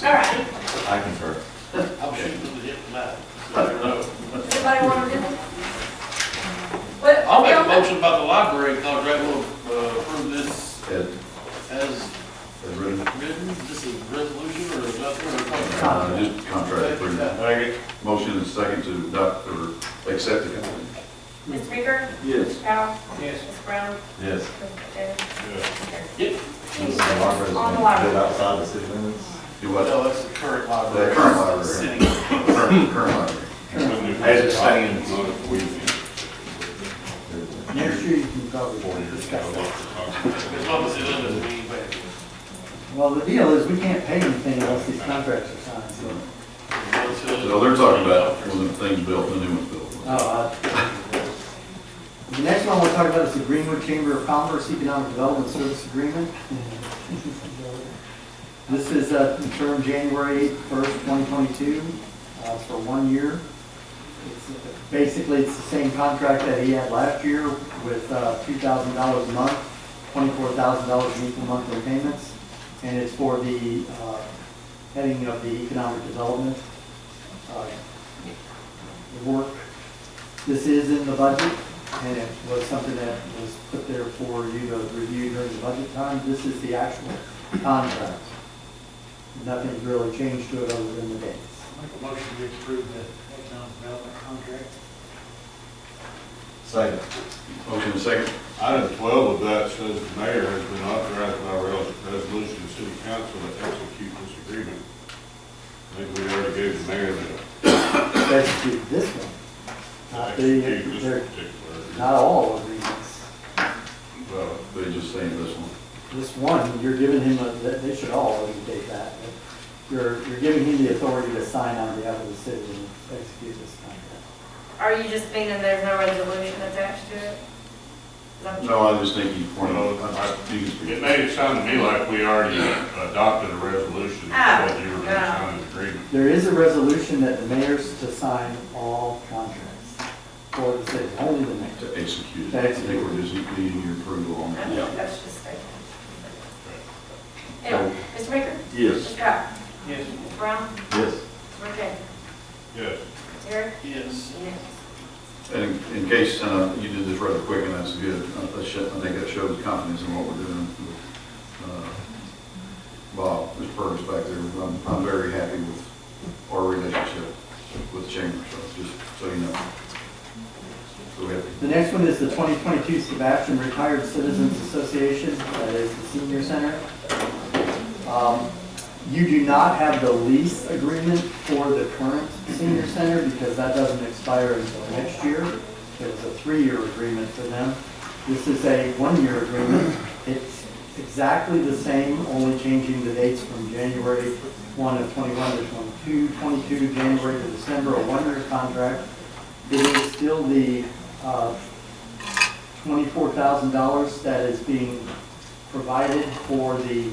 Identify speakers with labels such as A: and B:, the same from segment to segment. A: All right,
B: I concur.
C: I'm shooting with it tonight. I don't know.
A: does anybody want to do it? Well,
C: I'll make a
A: yeah,
C: motion about the library contract, we'll uh, approve this
B: Ed,
C: as
B: Ed Ritter?
C: written, this is resolution or nothing or contract.
B: Uh, Just contract agreement. Motion and second to adopt or accept the contract.
A: Mr. Meeker,
B: Yes.
A: Powell,
C: Yes.
A: Mr. Brown,
B: Yes.
A: Mr. Taylor.
C: Yep,
A: On the library.
B: outside the city limits? Do what?
C: well, that's the current library.
B: The current library.
C: Sitting.
B: Current current library.
D: As it stands.
E: Next year you can probably discuss that.
C: As long as it doesn't mean, but
E: Well, the deal is, we can't pay anything unless these contracts are signed, so.
C: as long as it doesn't.
B: So they're talking about when the thing's built, the new one's built.
E: Oh, uh, The next one we'll talk about is the Greenwood Chamber of Commerce Economic Development Service Agreement. This is uh, term January 1st, 2022, uh, for one year. It's, uh, Basically, it's the same contract that he had last year with uh, $2,000 a month, $24,000 in equal monthly payments, and it's for the uh, heading of the economic development uh, work this is in the budget, and it was something that was put there for you to review during the budget time. This is the actual contract. Nothing's really changed to it other than the dates.
F: Make a motion to approve the economic development contract.
D: Second.
B: Motion and second?
G: Item twelve of that says the mayor has been authorized by res- resolution of city council to execute this agreement. I think we already gave the mayor the.
E: Execute this one, not the,
G: execute this
E: they're-
G: particular-
E: not all agreements.
B: Well, they just saying this one.
E: This one, you're giving him, a- they they should all indicate that. You're, you're giving him the authority to sign on behalf of the city and execute this contract.
A: Are you just meaning there's no resolution attached to it? Is that what you-
B: No, I just think you pointed out, I- I- you can
G: It
B: speak.
G: made it sound to me like we already adopted a resolution
A: Oh,
G: that you were
A: no.
G: gonna sign an agreement.
E: There is a resolution that the mayor's to sign all contracts for the city, only the mayor.
B: to execute it. I think we're just needing your approval on that.
A: Okay, That's just statement. Anyway, Mr. Meeker,
B: Yes.
A: Mr. Powell,
F: Yes.
A: Mr. Brown,
B: Yes.
A: Mr. Taylor,
G: Yes.
A: Terry,
C: Yes.
A: and yes.
B: And in case uh, you did this rather quick, and that's good, I I sho- I think that shows confidence in what we're doing. Uh, Bob, Mr. Purvis back there, I'm- I'm very happy with our relationship with the Chamber, so just so you know. So we have
E: The next one is the 2022 Sebastian Retired Citizens Association, that is the senior center. Um, You do not have the lease agreement for the current senior center because that doesn't expire until next year. It was a three-year agreement for them. This is a one-year agreement. It's exactly the same, only changing the dates from January 1 of 21 to 22, 22 to January to December, a one-year contract. It is still the uh, $24,000 that is being provided for the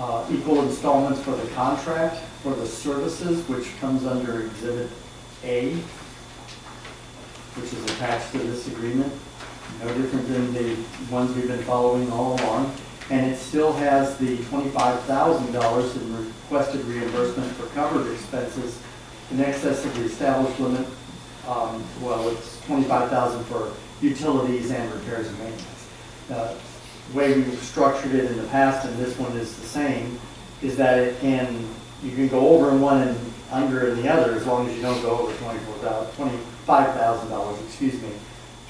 E: uh, equal installments for the contract for the services, which comes under Exhibit A, which is attached to this agreement. No different than the ones we've been following all along. And it still has the $25,000 in requested reimbursement for covered expenses in excess of the established limit. um, Well, it's $25,000 for utilities and repairs and maintenance. Uh, Way we've structured it in the past, and this one is the same, is that it can, you can go over in one and under in the other as long as you don't go over $24,000, $25,000, excuse me,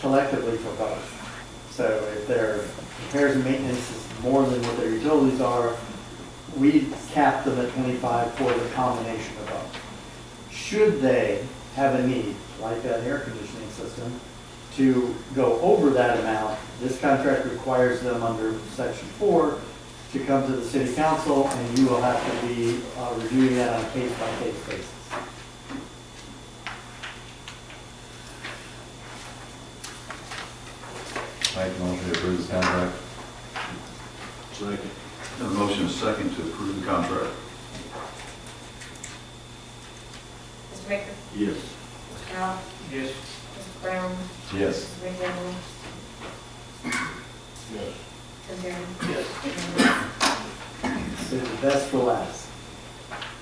E: collectively for both. So if their repairs and maintenance is more than what their utilities are, we cap them at 25 for the combination of both. Should they have a need, like an air conditioning system, to go over that amount, this contract requires them under section four to come to the city council and you will have to be uh, reviewing that on a case-by-case basis.
D: Make a motion to approve this contract.
G: Second.
B: a motion and second to approve the contract.
A: Mr. Maker,
D: Yes.
A: Mr. Powell,
F: Yes.
A: Mr. Brown,
D: Yes.
A: Mr. McDaniel,
G: Yes.
A: Mr. Terry.
C: Yes.
A: and yes.
E: So the best for last.